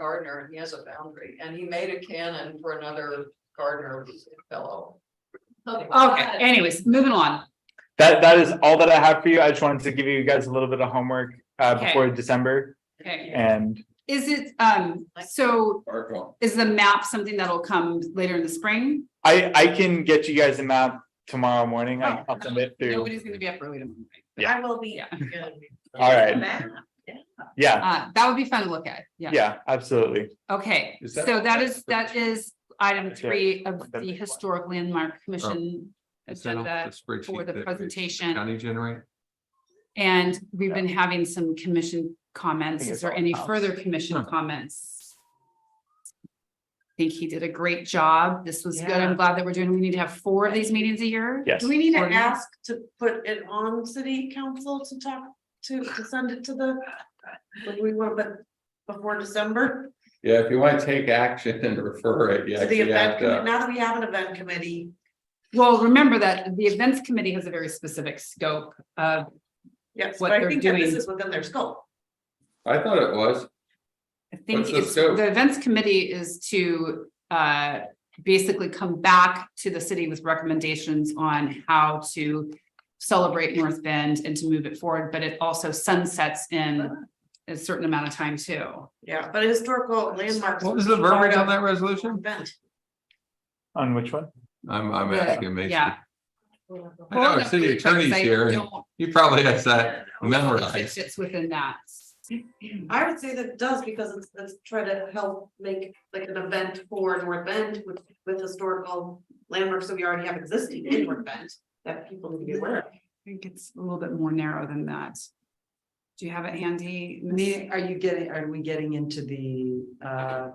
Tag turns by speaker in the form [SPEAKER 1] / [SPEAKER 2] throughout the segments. [SPEAKER 1] gardener and he has a boundary and he made a cannon for another gardener fellow.
[SPEAKER 2] Okay, anyways, moving on.
[SPEAKER 3] That, that is all that I have for you. I just wanted to give you guys a little bit of homework, uh,
[SPEAKER 2] Okay.
[SPEAKER 3] before December
[SPEAKER 2] Okay,
[SPEAKER 3] and
[SPEAKER 2] is it, um, so
[SPEAKER 4] Our call.
[SPEAKER 2] is the map something that'll come later in the spring?
[SPEAKER 3] I, I can get you guys a map tomorrow morning. I-
[SPEAKER 2] Oh.
[SPEAKER 3] I'll send it through.
[SPEAKER 2] Nobody's gonna be up early tomorrow. right?
[SPEAKER 3] Yeah.
[SPEAKER 5] I will be.
[SPEAKER 2] Yeah.
[SPEAKER 3] All right.
[SPEAKER 5] Matt,
[SPEAKER 3] Yeah,
[SPEAKER 2] Uh, that would be fun to look at, yeah.
[SPEAKER 3] yeah, absolutely.
[SPEAKER 2] Okay,
[SPEAKER 4] Is that-
[SPEAKER 2] so that is, that is item
[SPEAKER 3] That's it.
[SPEAKER 2] three of
[SPEAKER 3] Then-
[SPEAKER 2] the Historic Landmark Commission
[SPEAKER 4] Send off
[SPEAKER 2] agenda.
[SPEAKER 4] the spreadsheet
[SPEAKER 2] for the
[SPEAKER 4] that we-
[SPEAKER 2] presentation.
[SPEAKER 4] County generate.
[SPEAKER 2] And we've been having some commission comments.
[SPEAKER 3] think
[SPEAKER 2] Is
[SPEAKER 3] it's
[SPEAKER 2] there
[SPEAKER 3] all
[SPEAKER 2] any
[SPEAKER 3] house.
[SPEAKER 2] further commission
[SPEAKER 4] Huh.
[SPEAKER 2] comments? I Think he did a great job. This was good. I'm glad that we're doing, we need to have four of these meetings a year.
[SPEAKER 3] Yes.
[SPEAKER 5] Do we need to
[SPEAKER 2] Or-
[SPEAKER 5] ask to put it on city council to talk, to, to send it to the, like we want, but before December?
[SPEAKER 4] Yeah, if you want to take action and refer it, you
[SPEAKER 5] To the
[SPEAKER 4] actually
[SPEAKER 5] event,
[SPEAKER 4] have
[SPEAKER 5] commi-
[SPEAKER 4] to.
[SPEAKER 5] now that we have an event committee,
[SPEAKER 2] Well, remember that the events committee has a very specific scope of,
[SPEAKER 5] yes,
[SPEAKER 2] What
[SPEAKER 5] but I
[SPEAKER 2] they're
[SPEAKER 5] think that this
[SPEAKER 2] doing.
[SPEAKER 5] is within their scope.
[SPEAKER 4] I thought it was.
[SPEAKER 2] I think
[SPEAKER 4] What's the
[SPEAKER 2] it's,
[SPEAKER 4] scope?
[SPEAKER 2] the events committee is to uh basically come back to the city with recommendations on how to celebrate North Bend and to move it forward, but it also sunsets in a certain amount of time too.
[SPEAKER 5] Yeah, but historical landmarks.
[SPEAKER 4] What was the verbiage on that resolution?
[SPEAKER 5] Event.
[SPEAKER 3] On which one?
[SPEAKER 4] I'm, I'm
[SPEAKER 2] The-
[SPEAKER 4] asking Mason.
[SPEAKER 2] yeah.
[SPEAKER 4] I know, our city attorney's here. and He probably has that
[SPEAKER 2] It
[SPEAKER 4] memorized.
[SPEAKER 2] fits within that.
[SPEAKER 5] I would say that it does because it's, it's try to help make like an event for North Bend with, with historical landmarks that we already have existing in North Bend that people need to be aware of.
[SPEAKER 2] I think it's a little bit more narrow than that. Do you have it handy? Miss?
[SPEAKER 6] Me, are you getting, are we getting into the uh?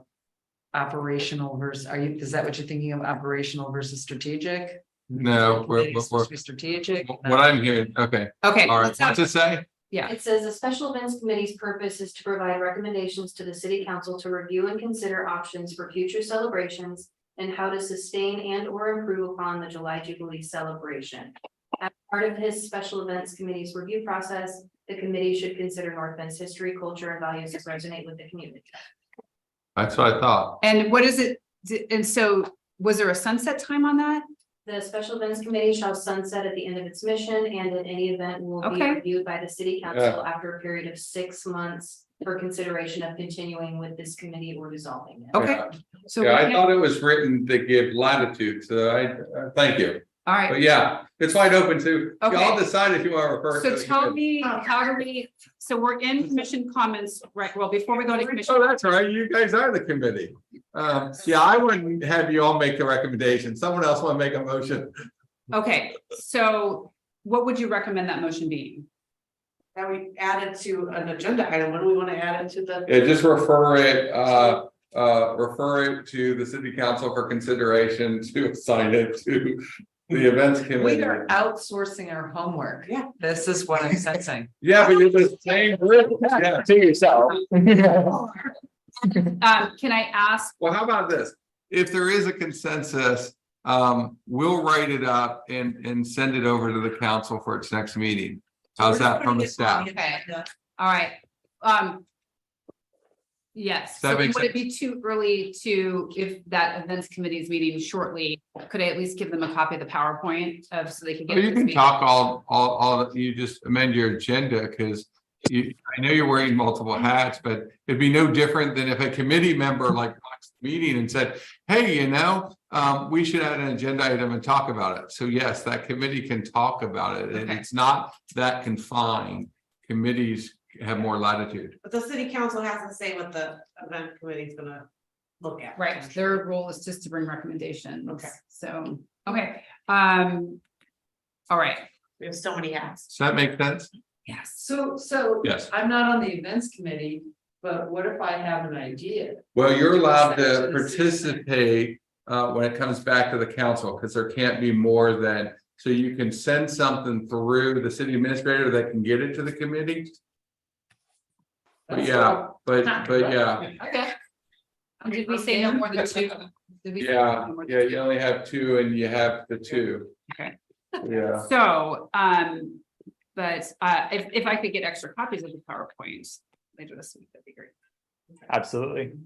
[SPEAKER 6] Operational versus, are you, is that what you're thinking of, operational versus strategic?
[SPEAKER 4] No, we're-
[SPEAKER 6] It's
[SPEAKER 4] we're-
[SPEAKER 6] supposed to be Strategic.
[SPEAKER 4] What I'm hearing, okay,
[SPEAKER 2] Okay.
[SPEAKER 4] all right,
[SPEAKER 2] let's have-
[SPEAKER 4] what's it say?
[SPEAKER 2] Yeah.
[SPEAKER 7] It says the special events committee's purpose is to provide recommendations to the city council to review and consider options for future celebrations. And how to sustain and or improve upon the July Jubilee celebration. As part of his special events committee's review process, the committee should consider North Bend's history, culture, and values that resonate with the community.
[SPEAKER 4] That's what I thought.
[SPEAKER 2] And what is it? d- And so was there a sunset time on that?
[SPEAKER 7] The special events committee shall sunset at the end of its mission and in any event will be
[SPEAKER 2] Okay.
[SPEAKER 7] reviewed by the city council after a period of six months. For consideration of continuing with this committee or dissolving it.
[SPEAKER 2] Okay.
[SPEAKER 4] Yeah.
[SPEAKER 2] So,
[SPEAKER 4] Yeah,
[SPEAKER 2] we
[SPEAKER 4] I
[SPEAKER 2] can't-
[SPEAKER 4] thought it was written to give latitude, so I, uh, thank you.
[SPEAKER 2] all right.
[SPEAKER 4] But yeah, it's wide open to, y'all
[SPEAKER 2] Okay.
[SPEAKER 4] decide if you want to refer. it to
[SPEAKER 2] So
[SPEAKER 4] the
[SPEAKER 2] tell me,
[SPEAKER 4] committee.
[SPEAKER 2] how do we, so we're in commission comments, right? Well, before we go to commission,
[SPEAKER 4] Oh, that's all right. You guys are the committee. Um, yeah, I wouldn't have you all make the recommendation. Someone else want to make a motion.
[SPEAKER 2] okay, so what would you recommend that motion be?
[SPEAKER 5] That we added to an agenda item, what do we wanna add it to the?
[SPEAKER 4] Yeah, just refer it, uh, uh, refer it to the city council for consideration to assign it to the events
[SPEAKER 6] We
[SPEAKER 4] committee.
[SPEAKER 6] are outsourcing our homework.
[SPEAKER 5] Yeah.
[SPEAKER 6] This is what I'm sensing.
[SPEAKER 4] Yeah, but you're the same group. Yeah.
[SPEAKER 3] To yourself.
[SPEAKER 2] Um, can I ask,
[SPEAKER 4] Well, how about this? If there is a consensus, um, we'll write it up and, and send it over to the council for its next meeting. How's that from the staff?
[SPEAKER 2] Okay. all right, um. Yes,
[SPEAKER 4] That
[SPEAKER 2] so
[SPEAKER 4] makes
[SPEAKER 2] would it be too early to, if that events committee's meeting shortly, could I at least give them a copy of the PowerPoint of, so they can get?
[SPEAKER 4] Well, Oh, You
[SPEAKER 2] this
[SPEAKER 4] can
[SPEAKER 2] meeting?
[SPEAKER 4] talk all, all, all, you just amend your agenda, because you, I know you're wearing multiple
[SPEAKER 2] Mm-hmm.
[SPEAKER 4] hats, but it'd be no different than if a committee member like watched the meeting and said, hey, you know, um, we should add an agenda item and talk about it. So yes, that committee can talk about it, and
[SPEAKER 2] Okay.
[SPEAKER 4] it's not that confined. Committees have more latitude.
[SPEAKER 5] But the city council has to say what the event committee's gonna look at.
[SPEAKER 2] Right, their role is just to bring recommendations.
[SPEAKER 5] Okay.
[SPEAKER 2] So, okay, um. All right,
[SPEAKER 5] We have so many hats.
[SPEAKER 4] Does that make sense?
[SPEAKER 2] yes,
[SPEAKER 6] So, so
[SPEAKER 4] Yes.
[SPEAKER 6] I'm not on the events committee, but what if I have an idea?
[SPEAKER 4] Well, you're allowed to
[SPEAKER 6] Section six.
[SPEAKER 4] participate uh when it comes back to the council, because there can't be more than. So you can send something through the city administrator that can get it to the committee, but
[SPEAKER 6] That's
[SPEAKER 4] yeah, but but yeah.
[SPEAKER 6] all. Okay.
[SPEAKER 2] And did we say no more than two? Did we say
[SPEAKER 4] Yeah,
[SPEAKER 2] no more than
[SPEAKER 4] yeah, you only have two and you have the two.
[SPEAKER 2] Okay.
[SPEAKER 4] Yeah,
[SPEAKER 2] So, um, but, uh, if, if I could get extra copies of the PowerPoint later this week, that'd be great.
[SPEAKER 3] Absolutely.